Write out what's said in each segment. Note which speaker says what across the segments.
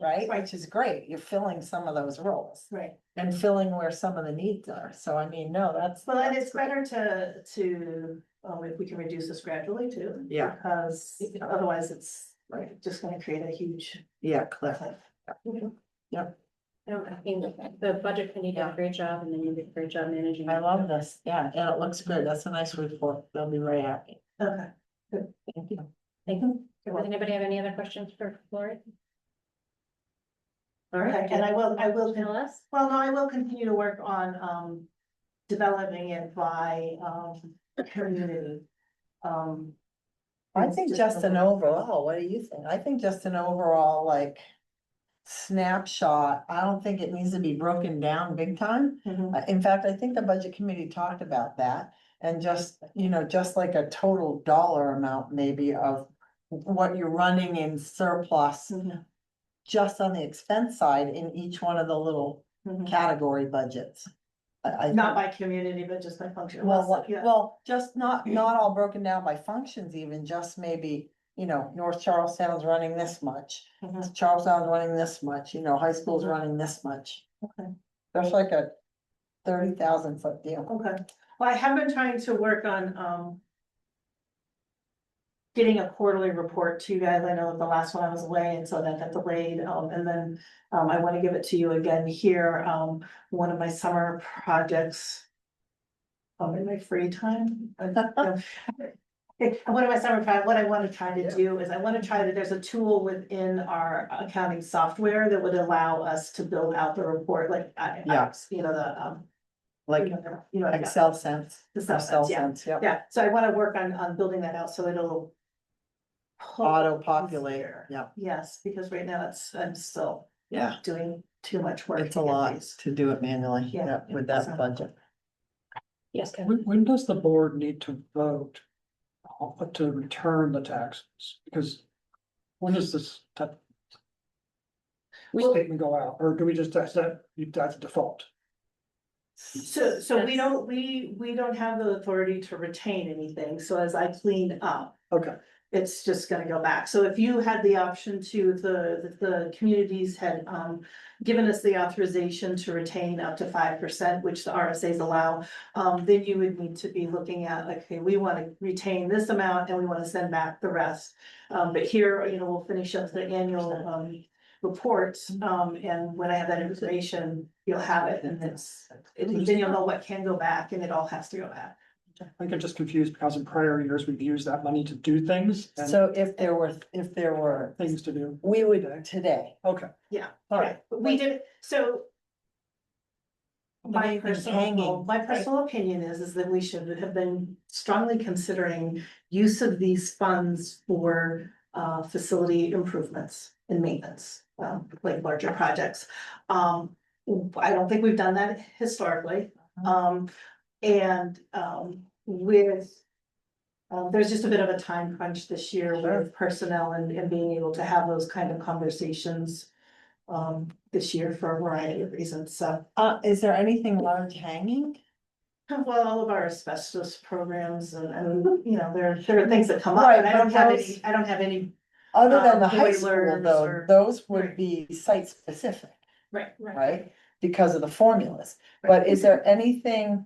Speaker 1: right?
Speaker 2: Right.
Speaker 1: Which is great, you're filling some of those roles
Speaker 2: Right,
Speaker 1: and filling where some of the needs are, so I mean, no, that's.
Speaker 2: well, and
Speaker 1: that's
Speaker 2: it's
Speaker 1: great.
Speaker 2: better to, to, um, if we can reduce this gradually too.
Speaker 1: Yeah.
Speaker 2: Because otherwise it's
Speaker 1: Right.
Speaker 2: just gonna create a huge.
Speaker 1: Yeah, Cliff,
Speaker 2: cliff.
Speaker 3: No, I think the budget committee did a
Speaker 1: Yeah.
Speaker 3: great job and then you did a great job managing.
Speaker 1: I love this, yeah, and it looks good, that's a nice report, they'll be very happy,
Speaker 2: Okay.
Speaker 1: thank you.
Speaker 3: Thank you. Does anybody have any other questions for Lori? All
Speaker 2: Okay,
Speaker 3: right,
Speaker 2: and I will, I will,
Speaker 3: Tell us.
Speaker 2: well, no, I will continue to work on, um, developing it by, um, community. Um.
Speaker 1: I think just an overall, what do you think? I think just an overall like snapshot, I don't think it needs to be broken down big time.
Speaker 2: Mhm.
Speaker 1: Uh, In fact, I think the budget committee talked about that and just, you know, just like a total dollar amount maybe of what you're running in surplus
Speaker 2: Mhm.
Speaker 1: just on the expense side in each one of the little
Speaker 2: Mhm.
Speaker 1: category budgets. I- I think-
Speaker 2: Not by community, but just by function.
Speaker 1: well, what-
Speaker 2: Yeah.
Speaker 1: well, just not, not all broken down by functions even, just maybe, you know, North Charlestown's running this much.
Speaker 2: Mhm.
Speaker 1: Charlestown's running this much, you know, high school's
Speaker 2: Mhm.
Speaker 1: running this much.
Speaker 2: Okay.
Speaker 1: That's like a thirty thousand foot deal.
Speaker 2: Okay, well, I have been trying to work on, um. Getting a quarterly report to you guys, I know that the last one I was away, and so that got delayed, um, and then, um, I wanna give it to you again here, um, one of my summer projects. Um, in my free time. I don't know. It- One of my summer, pro- what I wanna try to do is I wanna try to, there's a tool within our accounting software that would allow us to build out the report, like, I, I,
Speaker 1: Yeah.
Speaker 2: you know, the, um.
Speaker 1: Like
Speaker 2: You know, you know, yeah.
Speaker 1: Excel sense.
Speaker 2: The stuff,
Speaker 1: Excel
Speaker 2: yeah,
Speaker 1: sense, yeah.
Speaker 2: yeah, so I wanna work on, on building that out, so it'll. pull
Speaker 1: Auto
Speaker 2: things
Speaker 1: populate,
Speaker 2: here.
Speaker 1: yeah,
Speaker 2: Yes, because right now it's, I'm still
Speaker 1: yeah.
Speaker 2: doing too much work.
Speaker 1: It's
Speaker 2: to
Speaker 1: a
Speaker 2: get
Speaker 1: lot
Speaker 2: these.
Speaker 1: to do it manually,
Speaker 2: Yeah.
Speaker 1: yeah, with that
Speaker 2: So-
Speaker 1: budget.
Speaker 3: Yes, Kevin.
Speaker 4: When, when does the board need to vote on- to return the taxes? Because when does this ta-
Speaker 2: Well-
Speaker 4: statement go out, or do we just, that's that, that's default?
Speaker 2: So, so we don't, we, we don't have the authority to retain anything, so as I clean up,
Speaker 4: Okay,
Speaker 2: it's just gonna go back. So if you had the option to, if the, if the communities had, um, given us the authorization to retain up to five percent, which the RSA's allow, um, then you would need to be looking at, like, okay, we wanna retain this amount and we wanna send back the rest. Um, but here, you know, we'll finish up the annual, um, reports, um, and when I have that information, you'll have it and it's, it- then you'll know what can go back and it all has to go back.
Speaker 4: I think I'm just confused because in prior years, we've used that money to do things and
Speaker 1: So if there were, if there were,
Speaker 4: things to do.
Speaker 1: we would today.
Speaker 4: Okay,
Speaker 1: All right.
Speaker 2: But We did, so My personal,
Speaker 1: Hanging.
Speaker 2: my personal opinion is, is that we should have been strongly considering use of these funds for uh facility improvements and maintenance, um, like larger projects. Um, I don't think we've done that historically,
Speaker 1: Uh-huh.
Speaker 2: um, and um with. Um, there's just a bit of a time crunch this year
Speaker 1: Sure.
Speaker 2: with personnel and and being able to have those kind of conversations. Um, this year for a variety of reasons, so.
Speaker 1: Uh, is there anything large hanging?
Speaker 2: Well, all of our asbestos programs and, and, you know, there, there are things that come up,
Speaker 1: Right,
Speaker 2: and I
Speaker 1: but
Speaker 2: don't have
Speaker 1: those-
Speaker 2: any, I don't have any.
Speaker 1: Other than
Speaker 2: Um,
Speaker 1: the high school
Speaker 2: boilers
Speaker 1: though,
Speaker 2: or-
Speaker 1: those would
Speaker 2: Right.
Speaker 1: be site specific,
Speaker 2: Right,
Speaker 1: right? Because of the formulas, but is there anything,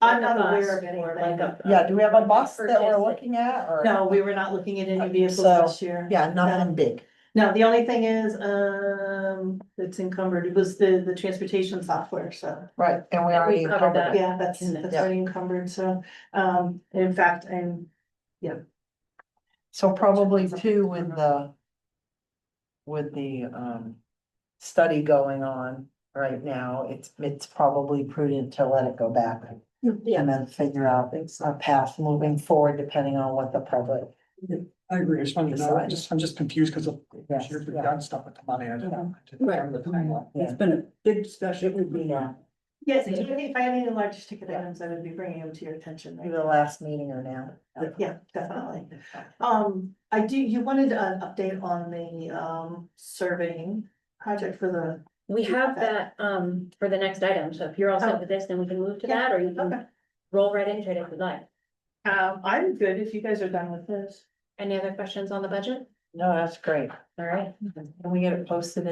Speaker 2: I'm not aware of
Speaker 3: Or like
Speaker 2: anything.
Speaker 3: a-
Speaker 1: yeah, do we have a bus that we're
Speaker 3: Purchase.
Speaker 1: looking at or?
Speaker 2: No, we were not looking at any
Speaker 1: Okay,
Speaker 2: vehicles
Speaker 1: so-
Speaker 2: this year.
Speaker 1: Yeah, nothing big,
Speaker 2: Uh, No, the only thing is, um, it's encumbered, it was the, the transportation software, so,
Speaker 1: right, and we already
Speaker 3: covered
Speaker 1: covered
Speaker 3: that.
Speaker 1: that.
Speaker 2: yeah, that's,
Speaker 3: Yeah.
Speaker 2: that's already encumbered, so, um, in fact, I'm.
Speaker 1: So probably too with the. With the um study going on right now, it's it's probably prudent to let it go back.
Speaker 3: Yeah.
Speaker 1: And then figure out a path moving forward depending on what the public.
Speaker 4: I agree, I just wanted to know, I just, I'm just confused because of,
Speaker 1: Yes,
Speaker 4: years we've
Speaker 1: yeah.
Speaker 4: done stuff with the money. I didn't- I didn't
Speaker 3: Right.
Speaker 4: remember the timeline.
Speaker 1: It's
Speaker 5: been a big discussion.
Speaker 1: It would be now,
Speaker 2: Yes, I think if I had any large ticket items, I would be bringing them to your attention. right?
Speaker 1: maybe the last meeting or now.
Speaker 2: uh, Yeah, definitely. Um, I do, you wanted an update on the um surveying project for
Speaker 3: We have that um for the next item, so if you're all
Speaker 2: Oh.
Speaker 3: set with this, then we can move to that, or you
Speaker 2: the.
Speaker 3: can roll right into it if you'd like.
Speaker 2: Um, I'm good if you guys are done with this.
Speaker 3: Any other questions on the budget?
Speaker 1: No, that's great.
Speaker 3: all right.
Speaker 1: Can we get it posted